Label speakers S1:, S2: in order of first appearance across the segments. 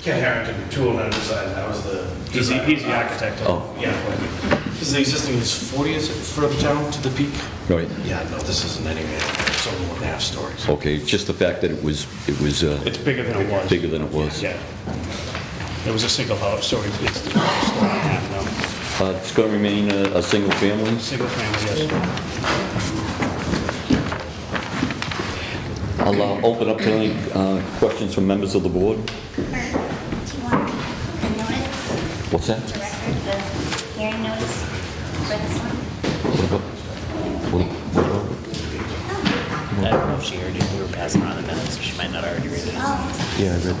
S1: Ken Harrington, 209 Design, that was the.
S2: He's the, he's the architect.
S3: Oh,
S1: Yeah.
S4: Is the existing is 40, is it, further down to the peak?
S3: right,
S4: Yeah, no, this isn't anywhere, it's only one and a half stories.
S3: okay, just the fact that it was, it was uh,
S2: It's bigger than it was.
S3: bigger than it was.
S2: Yeah. It was a single house, so it's, it's story and a half now.
S3: Uh, It's going to remain a a single family?
S2: Single family, yes.
S3: I'll uh, open up to any uh, questions from members of the board.
S5: Do you want the notice,
S3: What's that?
S5: the record, the hearing notice for this one?
S3: What about- what- what about-
S6: I don't know if she heard it. We were passing around the minutes, so she might not already read it.
S5: Oh,
S3: Yeah, I read that.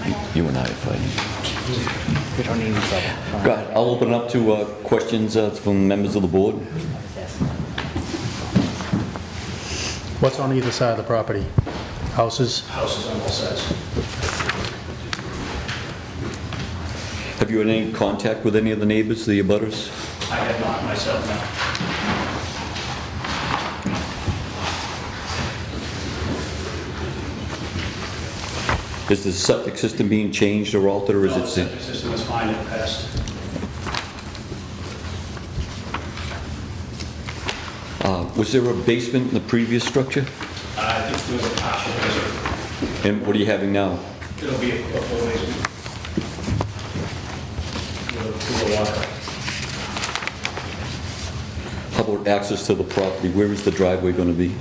S5: my bad.
S3: You and I are fighting.
S6: We don't need each other.
S3: Go ahead, I'll open up to uh, questions uh, from members of the board.
S7: What's on either side of the property? Houses?
S1: Houses on both sides.
S3: Have you had any contact with any of the neighbors, the abutters?
S1: I have not myself, no.
S3: Is the septic system being changed or altered, or is
S1: No,
S3: it...
S1: the septic system is fine, it passed.
S3: Uh, Was there a basement in the previous structure?
S1: Uh, I think there was a partial basement.
S3: And what are you having now?
S1: It'll be a a full basement. With a pool of water.
S3: How about access to the property? Where is the driveway going to be?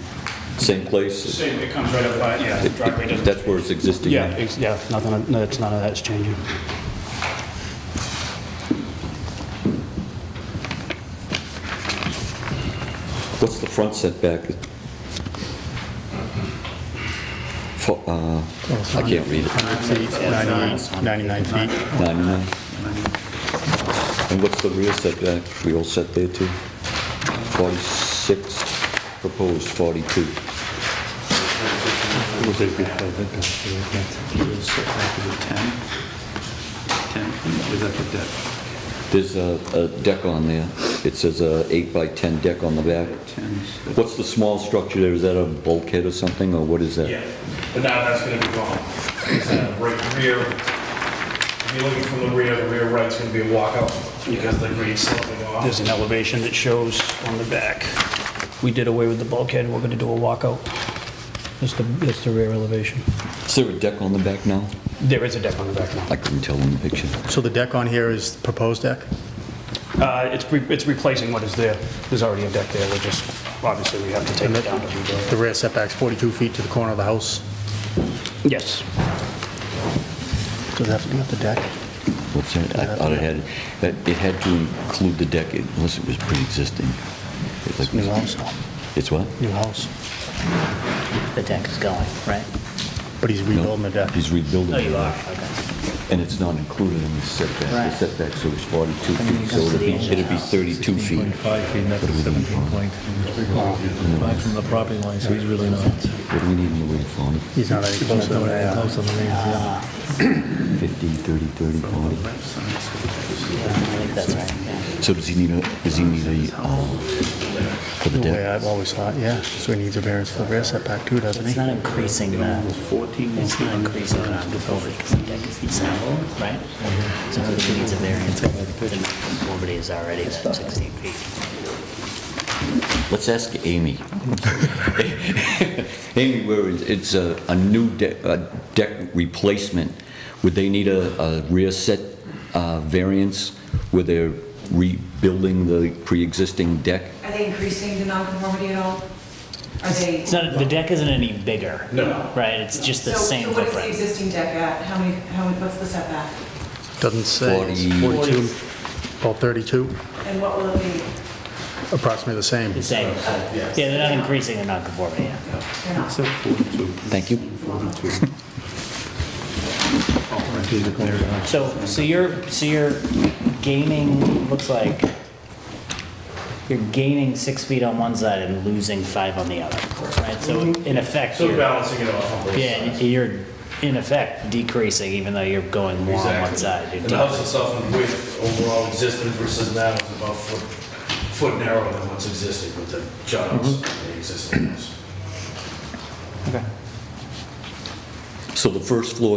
S3: Same place?
S1: Same, it comes right up by, yeah, the driveway doesn't.
S3: That's where it's existing?
S2: Yeah, it's- yeah, nothing, no, it's none of that's changing.
S3: What's the front setback? For, uh, I can't read it.
S7: 100 feet, 99 99 feet.
S3: 99? And what's the rear setback? We all set there too? 46, proposed 42. There's a a deck on there. It says a 8 by 10 deck on the back. What's the small structure there? Is that a bulkhead or something, or what is that?
S1: Yeah, but now that's gonna be gone. It's, uh, Right rear, if you're looking from the rear, the rear right's gonna be a walkout because the grade's sloping off.
S2: There's an elevation that shows on the back. We did away with the bulkhead, we're gonna do a walkout. That's the, that's the rear elevation.
S3: Is there a deck on the back now?
S2: There is a deck on the back now.
S3: I couldn't tell in the picture.
S7: So the deck on here is proposed deck?
S2: Uh, it's, re- it's replacing what is there. There's already a deck there, we're just, obviously, we have to take
S7: And
S2: it down to rebuild.
S7: the- the rear setback's 42 feet to the corner of the house?
S2: Yes.
S7: Does it have to be off the deck?
S3: What's that? I thought it had, that it had to include the deck unless it was pre-existing. It's like-
S7: New house,
S3: It's what?
S7: new house.
S6: The deck is going, right?
S7: But he's
S3: No,
S7: rebuilding the deck.
S3: He's rebuilding.
S6: Oh, you
S3: it.
S6: are, okay.
S3: And it's not included in the setback.
S6: Right.
S3: The setback, so it's 42
S6: And then
S3: feet,
S6: it
S3: so
S6: goes to
S3: it'd
S6: the
S3: be,
S6: edge of
S3: it'd
S6: the
S3: be
S6: house.
S3: 32 feet.
S8: 16.5 feet, and that's 17.3. Back from the property line, so he's really not.
S3: What do we need in the way of font?
S7: He's not any closer than that.
S8: Close on the range, yeah.
S3: 15, 30, 30, 40?
S6: I think that's right, yeah.
S3: So does he need a, does he need a, um, for the
S7: The way
S3: deck?
S7: I've always thought, yeah. So he needs a variance for the rear setback too, doesn't
S6: It's
S7: he?
S6: not increasing the, it's not increasing the non-conformity because the deck is decent, right? So if it needs a variance, the non-conformity is already that 16 feet.
S3: Let's ask Amy. Amy, where is- it's a, a new deck, a deck replacement, would they need a, a rear set uh, variance where they're rebuilding the pre-existing deck?
S9: Are they increasing the nonconformity at all? Are they?
S6: It's not, the deck isn't any bigger.
S1: No.
S6: Right, it's just the
S9: So-
S6: same
S9: So what is the
S6: footprint.
S9: existing deck at? How many, how, many- what's the setback?
S7: Doesn't say. It's
S3: 40.
S7: 42, about 32,
S9: And what will it be?
S7: approximately the same.
S6: The same, yeah, they're not increasing the non-conformity, yeah.
S9: They're not.
S3: Thank you.
S6: So, so you're, so you're gaining, looks like, you're gaining six feet on one side and losing five on the other, right? So in effect,
S1: So
S6: you're,
S1: balancing it off on both
S6: yeah,
S1: sides.
S6: you're in effect decreasing even though you're going more on one
S1: Exactly.
S6: side. You're
S1: And the house
S6: decreasing.
S1: itself in width, overall existing versus now is about foot, foot narrower than what's existing with the jobs and the existing house.
S3: So the first floor